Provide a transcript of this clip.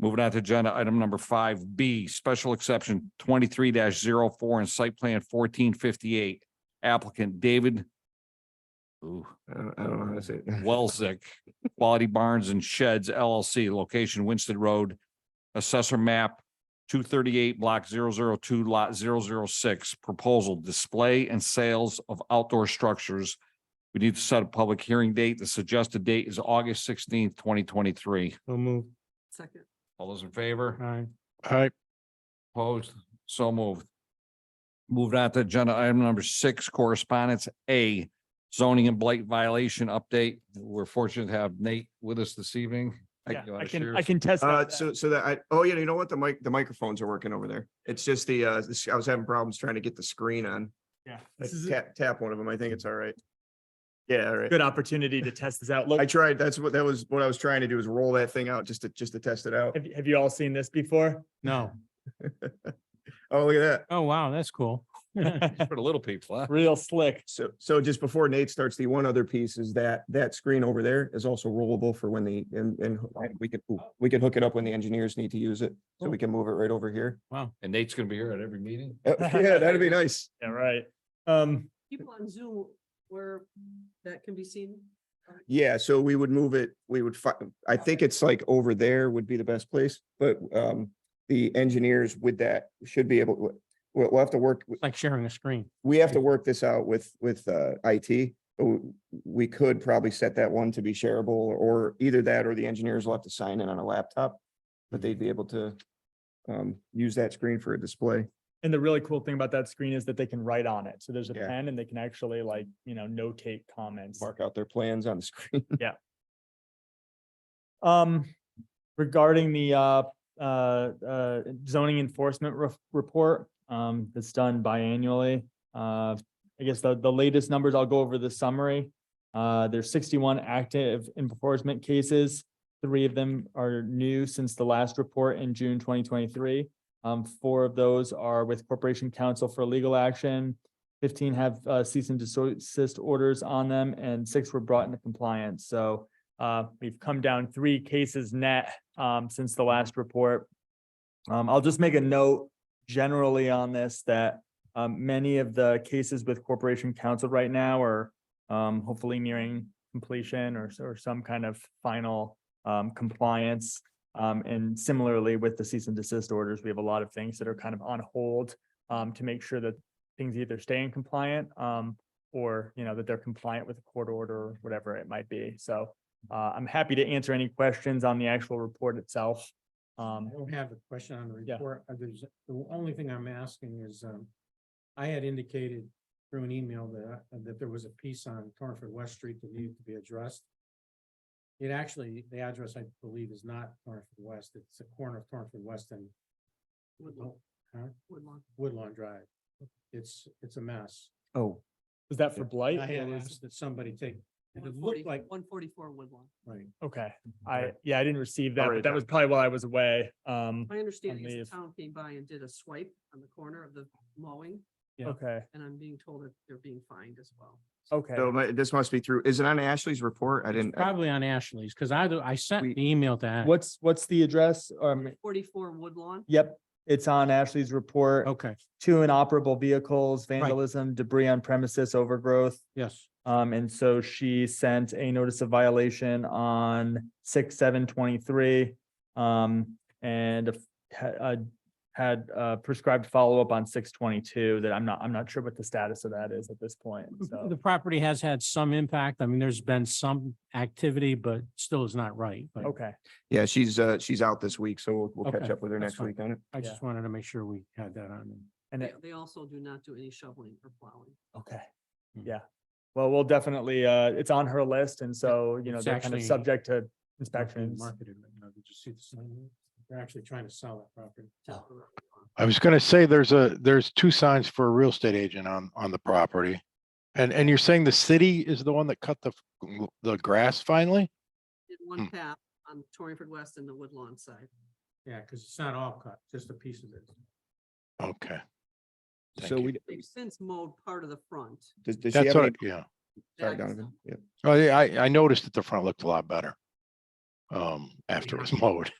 Moving on to agenda item number five B, special exception twenty-three 4 and site plan fourteen fifty-eight. Applicant David ooh, I don't, I don't know how to say it. Welzick, Quality Barns and Sheds LLC, location Winston Road, assessor map two thirty-eight, block 002, lot 006. proposal display and sales of outdoor structures. We need to set a public hearing date. The suggested date is August sixteenth, twenty twenty-three. So move. second, All those in favor? Aye. Aye. Opposed? So moved. Moved on to agenda item number six, correspondence A, zoning and blight violation update. We're fortunate to have Nate with us this evening. Yeah, You wanna I can, share? I can test. Uh, out that. so, so that I, oh, yeah, you know what? The mic, the microphones are working over there. It's just the, uh, this- I was having problems trying to get the screen on. Yeah, I this is a Tap, tap one of them. I think it's all right. Yeah, all right. good opportunity to test this out. Look, I tried, that's what, that was what I was trying to do is roll that thing out just to, just to test it out. have, have you all seen this before? No. Oh, look at that. Oh, wow, that's cool. For the little people, huh? Real slick. So, so just before Nate starts, the one other piece is that, that screen over there is also rollable for when the, and, and we could, we could hook it up when the engineers need to use it. So we can move it right over here. And Nate's gonna be here at every meeting. Oh, Yeah, that'd be nice. Yeah, right. Um, people on Zoom where that can be seen. Yeah, so we would move it, we would, fi- I think it's like over there would be the best place, but um, the engineers with that should be able, we'll, we'll have to work, Like sharing a screen. we have to work this out with, with uh, IT. but w- We could probably set that one to be shareable or either that or the engineers will have to sign in on a laptop. But they'd be able to um, use that screen for a display. and the really cool thing about that screen is that they can write on it. So there's a Yeah. pen and they can actually like, you know, notate comments. Mark out their plans on the screen. Um, regarding the uh, uh, uh, zoning enforcement re- report, um, that's done biannually. Uh, I guess the, the latest numbers, I'll go over the summary. Uh, there's sixty-one active enforcement cases. Three of them are new since the last report in June twenty twenty-three. Um, four of those are with Corporation Counsel for Legal Action. Fifteen have uh, cease and desist orders on them and six were brought into compliance. So uh, we've come down three cases net, um, since the last report. Um, I'll just make a note generally on this that, um, many of the cases with Corporation Council right now are, um, hopefully nearing completion or, or some kind of final, um, compliance. Um, and similarly with the cease and desist orders, we have a lot of things that are kind of on hold, um, to make sure that things either stay in compliant, um, or, you know, that they're compliant with a court order or whatever it might be. So, uh, I'm happy to answer any questions on the actual report itself. Um, I don't have a question on the Yeah. report. Uh, There's, the only thing I'm asking is, um, I had indicated through an email that, I- that there was a piece on Torrenford West Street that needed to be addressed. It actually, the address I believe is not Torrenford West. It's the corner of Torrenford West and Woodlawn, huh? Woodlawn. Woodlawn Drive. It's, it's a mess. Oh, was that for I blight? had asked that somebody take, and it looked like, One forty-four Woodlawn. right, Okay, I, yeah, I didn't receive that, Already but that was probably while I was away. Um, My understanding is leave. the town came by and did a swipe on the corner of the mowing, Yeah. okay, and I'm being told that they're being fined as well. okay. so my- this must be through, is it on Ashley's report? I didn't. I- Probably on Ashley's, because I, I sent We- an email to. Ash- What's, what's the address? Um, Forty-four Woodlawn, yep, it's on Ashley's report. Okay, Two inoperable vehicles, vandalism, debris on premises, overgrowth. yes. Um, and so she sent a notice of violation on six, seven, twenty-three. Um, and a f- ha- uh, had uh prescribed follow-up on six twenty-two that I'm not, I'm not sure what the status of that is at this point. So, The property has had some impact. I mean, there's been some activity, but still is not right. But okay, Yeah, she's, uh, she's out this week, so we'll, we'll catch Okay, up with her that's next fine. week on it. I yeah. just wanted to make sure we had that on. and they it, they also do not do any shoveling or plowing. okay, Hmm. yeah. Well, we'll definitely, uh, it's on her list and so, you know, it's they're kind of actually- subject to not being inspections. Marketed right now. Did you see the sign? They're actually trying to sell that property. temporarily. I was gonna say, there's a, there's two signs for a real estate agent on, on the property. And, and you're saying the city is the one that cut the, f- the grass finally? Did one Hmm. path on Torrenford West and the Woodlawn side. Yeah, because it's not all cut, just a piece of it. Okay. Thank So you. we, They've since mowed part of the front. does, does she That's have what, any? I- yeah. Sorry, That's Donovan. not- Yeah. Oh, yeah, I, I noticed that the front looked a lot better. Um, after it was mowed.